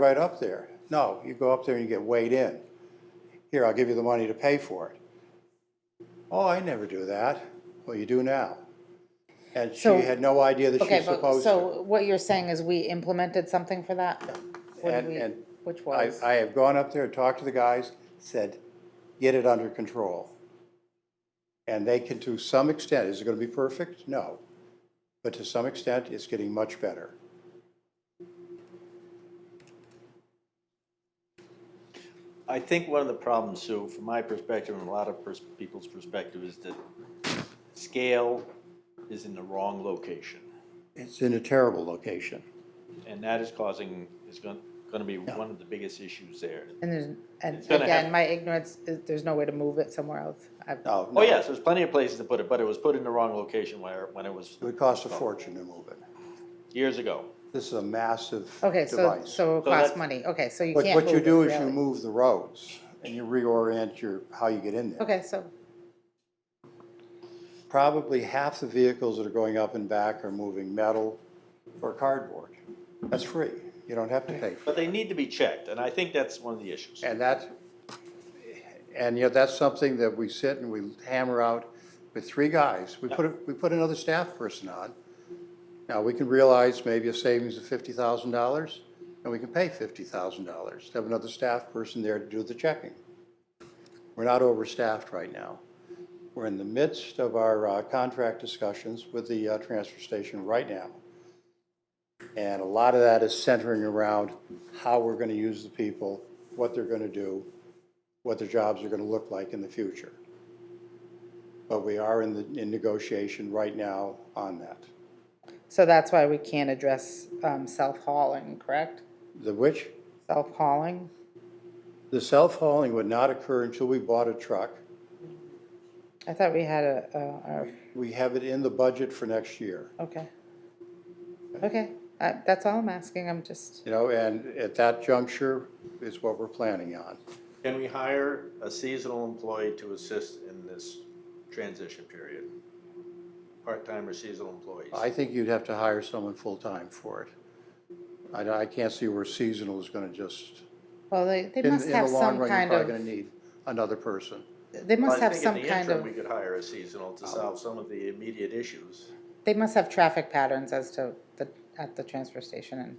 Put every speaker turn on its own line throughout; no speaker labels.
right up there. No, you go up there and you get weighed in. Here, I'll give you the money to pay for it. Oh, I never do that. Well, you do now. And she
So-
had no idea that
Okay,
she's
but,
supposed to.
so what you're saying is we implemented something for that? What did
And-
we-
and
Which
I,
was,
I have gone up there, talked to the guys, said, get it under control. And they can, to some extent, is it gonna be perfect? No. But to some extent, it's getting much better.
I think one of the problems, Sue, from my perspective and a lot of pers- people's perspective, is that scale is in the wrong location.
It's in a terrible location.
And that is causing, is going, going to be one of the biggest issues there.
and there's, and
It's gonna
again,
have-
my ignorance, is there's no way to move it somewhere else. I've-
No, no.
Oh, yes, there's plenty of places to put it, but it was put in the wrong location where, when it was
It would cost a fortune to move it.
years ago.
This is a massive
Okay,
device.
so, so it costs
that-
money, okay, so you
What,
can't move
what you
it,
do is you
really.
move the roads and you reorient your, how you get in there.
Okay, so,
Probably half the vehicles that are going up and back are moving metal or cardboard. That's free. You don't have to pay for it.
But they need to be checked, and I think that's one of the issues.
And that's, and yet that's something that we sit and we hammer out with three guys. We put, a- we put another staff person on. Now, we can realize maybe a savings of fifty thousand dollars, and we can pay fifty thousand dollars to have another staff person there to do the checking. We're not overstaffed right now. We're in the midst of our uh, contract discussions with the uh, transfer station right now. And a lot of that is centering around how we're going to use the people, what they're going to do, what their jobs are going to look like in the future. But we are in the, in negotiation right now on that.
so that's why we can't address, um, self-hauling, correct?
The which,
Self-hauling,
the self-hauling would not occur until we bought a truck.
I thought we had a, a-
We have it in the budget for next year,
a, okay. Okay, uh, that's all I'm asking, I'm just,
you know, and at that juncture is what we're planning on.
Can we hire a seasonal employee to assist in this transition period? Part-time or seasonal employees?
I think you'd have to hire someone full-time for it. I, I can't see where seasonal is going to just,
well, they, they
in,
must
in the
have
long
some
run, you're
kind
probably going
of,
to need another person.
they
Well, I
must have
think
some
In the
kind
interim,
of,
we could hire a seasonal to solve some of the immediate issues.
they must have traffic patterns as to the, at the transfer station and,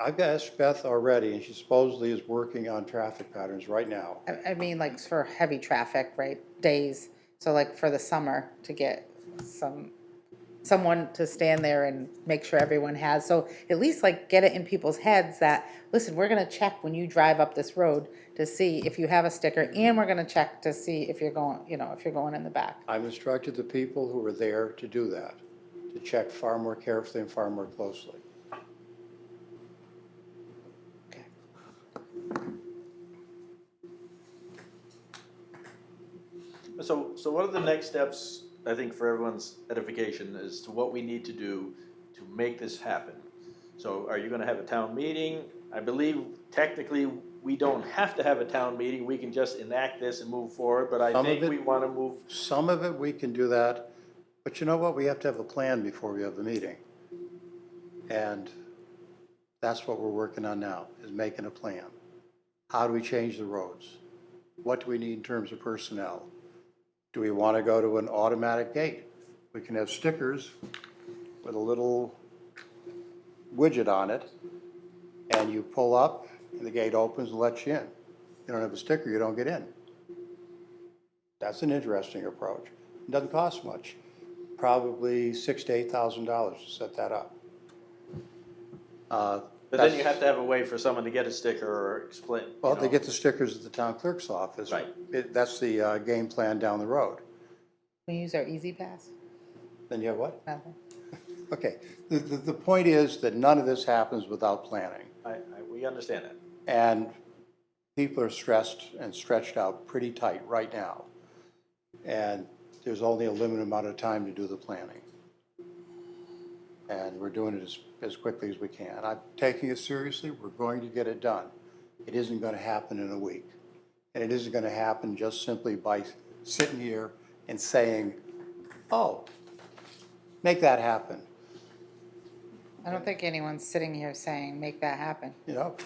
I've asked Beth already, and she supposedly is working on traffic patterns right now.
I, I mean, like for heavy traffic, right, days, so like for the summer to get some, someone to stand there and make sure everyone has, so at least like get it in people's heads that, listen, we're gonna check when you drive up this road to see if you have a sticker and we're gonna check to see if you're going, you know, if you're going in the back.
I've instructed the people who were there to do that, to check far more carefully and far more closely.
So, so what are the next steps, I think, for everyone's edification as to what we need to do to make this happen? So are you gonna have a town meeting? I believe technically, we don't have to have a town meeting, we can just enact this and move forward, but I
Some of
think
it-
we wanna move,
Some of it, we can do that, but you know what? We have to have a plan before we have the meeting. And that's what we're working on now, is making a plan. How do we change the roads? What do we need in terms of personnel? Do we want to go to an automatic gate? We can have stickers with a little widget on it, and you pull up, and the gate opens and lets you in. You don't have a sticker, you don't get in. That's an interesting approach. Doesn't cost much, probably six to eight thousand dollars to set that up. Uh,
but then you have to have a way for someone to get a sticker or explain. you
Well, they
know.
get the stickers at the town clerk's office.
Right.
It- That's the uh, game plan down the road.
We use our Easy Pass,
Then you have what?
nothing.
Okay, the, the, the point is that none of this happens without planning.
I, I, we understand that.
And people are stressed and stretched out pretty tight right now. And there's only a limited amount of time to do the planning. And we're doing it as, as quickly as we can. I'm taking it seriously, we're going to get it done. It isn't gonna happen in a week. And it isn't gonna happen just simply by sitting here and saying, oh, make that happen,
I don't think anyone's sitting here saying, make that happen.
you know?